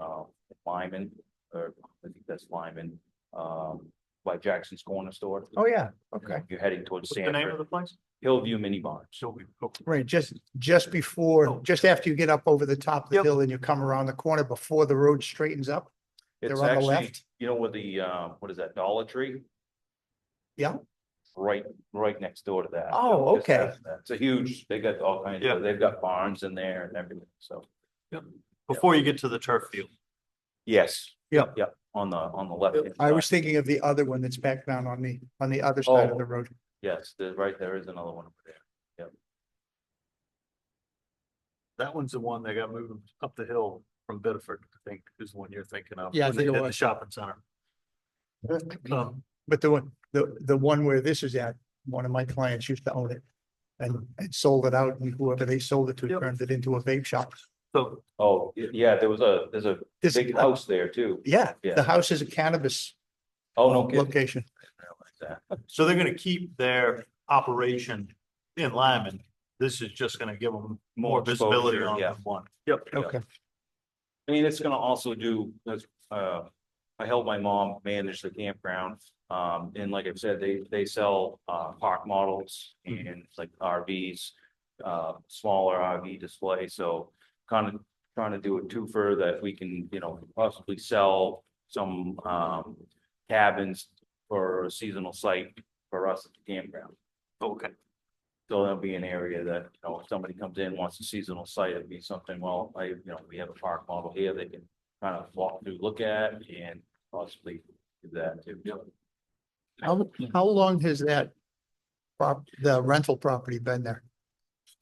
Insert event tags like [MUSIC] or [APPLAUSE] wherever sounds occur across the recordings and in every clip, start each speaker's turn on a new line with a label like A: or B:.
A: uh, Lyman, or I think that's Lyman, um, by Jackson's Corner Store.
B: Oh, yeah, okay.
A: You're heading towards
C: What's the name of
A: Sanford,
C: the place?
A: Hillview Mini Barn.
C: Sylvia. Okay.
B: Right, just, just before,
C: Oh.
B: just after you get up over the top of the
C: Yep.
B: hill and you come around the corner before the road straightens up. They're
A: It's
B: on the
A: actually,
B: left?
A: you know, where the, uh, what is that, Dollar Tree?
B: Yeah.
A: Right, right next door to that.
B: Oh,
A: Just
B: okay.
A: past that. It's a huge, they got all kinds
C: Yeah.
A: of, they've got barns in there and everything, so.
C: Before you get to the turf field.
A: Yes.
B: Yep.
A: Yep, on the, on the left.
B: I was thinking of the other one that's back down on the, on the other side
A: Oh.
B: of the road.
A: Yes, there's, right, there is another one over there.
C: That one's the one they got moved up the hill from Bedford, I think, is the one you're thinking of.
B: Yeah, I
C: when they
B: think it
C: did the
B: was. Mm-hmm.
C: Shopping center. Um,
B: But the one, the, the one where this is at, one of my clients used to own it. And, and sold it out and whoever they sold it to
C: Yep.
B: turned it into a vape shop.
C: So,
A: Oh, y- yeah, there was a, there's a
B: This,
A: big house there too.
B: yeah,
A: Yeah.
B: the house is a cannabis
A: Oh, no kidding.
B: location.
C: so they're gonna keep their operation in Lyman. This is just gonna give them more visibility
A: exposure,
C: on
A: yeah.
C: the one. Yep.
A: Yeah.
B: Okay,
A: I mean, it's gonna also do, that's, uh, I help my mom manage the campground. Um, and like I've said, they, they sell, uh, park models and like RVs, uh, smaller RV display, so kind of trying to do it too fur that we can, you know, possibly sell some, um, cabins for a seasonal site for us at the campground.
C: Okay.
A: So that'll be an area that, you know, if somebody comes in, wants a seasonal site, it'd be something, well, I, you know, we have a park model here, they can kind of walk through, look at, and possibly do that too.
B: how, how long has that prop, the rental property been there?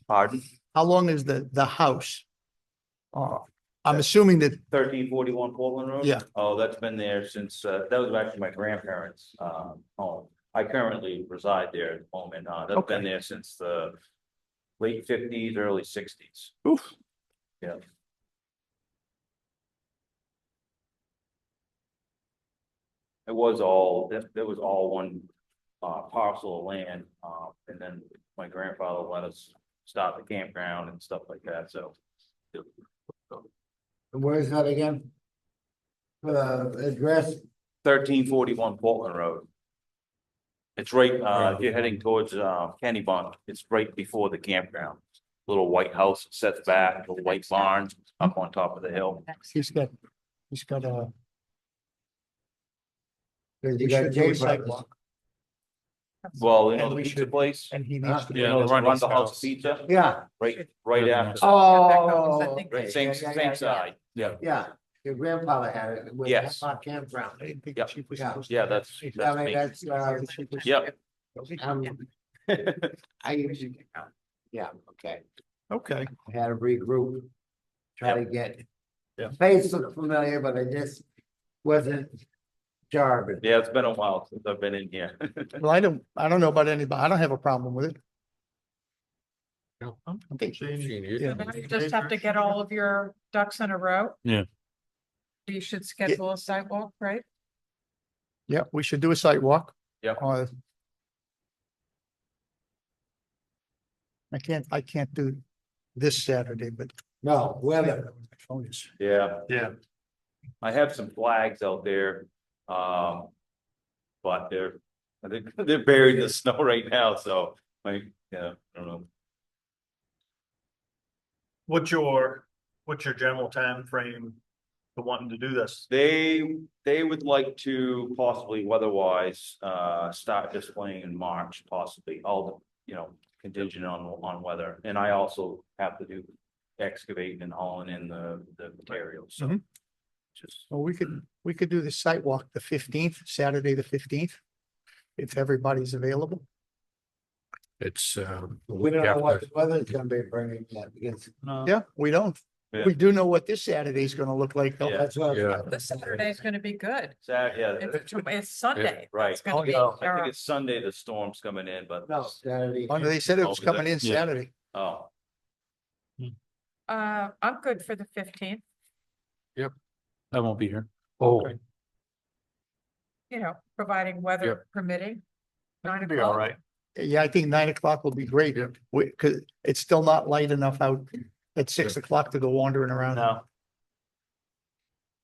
A: Pardon?
B: How long is the, the house? Oh, I'm assuming that,
A: Thirteen forty-one Portland Road?
B: Yeah.
A: Oh, that's been there since, uh, that was actually my grandparents', um, home. I currently reside there at the moment, uh, that's been
B: Okay.
A: there since the late fifties, early sixties.
B: oof,
A: It was all, that, that was all one, uh, parcel of land, uh, and then my grandfather let us stop the campground and stuff like that, so.
D: Where is that again? Uh, address,
A: Thirteen forty-one Portland Road. It's right, uh, you're heading towards, uh, Kennybunk, it's right before the campground. Little white house sets back, the white barn up on top of the hill.
B: he's got, he's got a.
D: cause
B: we
D: you got
B: should do a
D: J-Buck,
B: sidewalk,
A: Well, you know,
B: And we
A: the pizza
B: should-
A: place,
B: And he
D: Huh?
B: needs to.
A: you know, the
B: his
A: run the
B: wife's
A: house
B: house.
A: pizza,
D: yeah.
A: right, right after,
D: Oh. okay,
A: right, same,
D: yeah, yeah,
A: same
D: yeah, yeah.
A: side, yeah.
D: Yeah, your grandfather had it with
A: Yes.
D: Hancock Campground.
B: I didn't think
A: Yeah.
B: she was
D: Yeah.
B: supposed to-
A: Yeah, that's,
D: I
A: that's
D: mean,
A: me,
D: that's, uh,
A: Yep. [LAUGHS]
D: um, I usually, yeah, okay,
B: Okay,
D: I had to regroup. Try to get,
C: Yeah.
D: face looked familiar, but I just wasn't jarred.
A: yeah, it's been a while since I've been in here. [LAUGHS]
B: well, I don't, I don't know about anybody, I don't have a problem with it.
C: I
B: think
C: Yeah.
E: Now You just have to get all of your ducks in a row.
C: Yeah.
E: You should schedule a sidewalk, right?
B: Yeah, we should do a site walk.
A: Yep.
B: Uh, I can't, I can't do this Saturday, but. uh,
D: No, weather,
B: My phone is.
A: Yeah.
C: Yeah.
A: I have some flags out there, um. But they're, I think they're buried in the snow [LAUGHS] right now, so, like, yeah, I don't know.
C: What's your, what's your general time frame to wanting to do this?
A: They, they would like to possibly weather-wise, uh, start displaying in March possibly, all the, you know, contingent on, on weather. And I also have to do excavating and hauling in the, the materials, so.
B: Mhm.
A: Just,
B: Well, we could, we could do the site walk the fifteenth, Saturday, the fifteenth. If everybody's available.
F: It's, um.
D: we don't know what the weather's gonna be bringing yet, because
B: Yeah, we don't.
A: Yeah.
B: We do know what this Saturday is gonna look like though.
A: Yeah.
D: that's what.
F: Yeah.
E: The Saturday's gonna be good.
A: sad, yeah,
E: It's it's Sunday.
A: right.
E: It's gonna be.
A: I think
E: terrible.
A: it's Sunday the storm's coming in, but.
D: No, Saturday.
B: Oh, no, they said it was
A: Oh, was it?
B: coming in
F: Yeah.
B: Saturday.
A: Oh,
E: Uh, I'm good for the fifteenth,
F: I won't be here. Oh.
E: you know, providing weather permitting. Nine
C: Be all
E: o'clock.
C: right.
B: Yeah, I think nine o'clock will be great. We, cause it's still not light enough out at six o'clock to go wandering around.
C: No,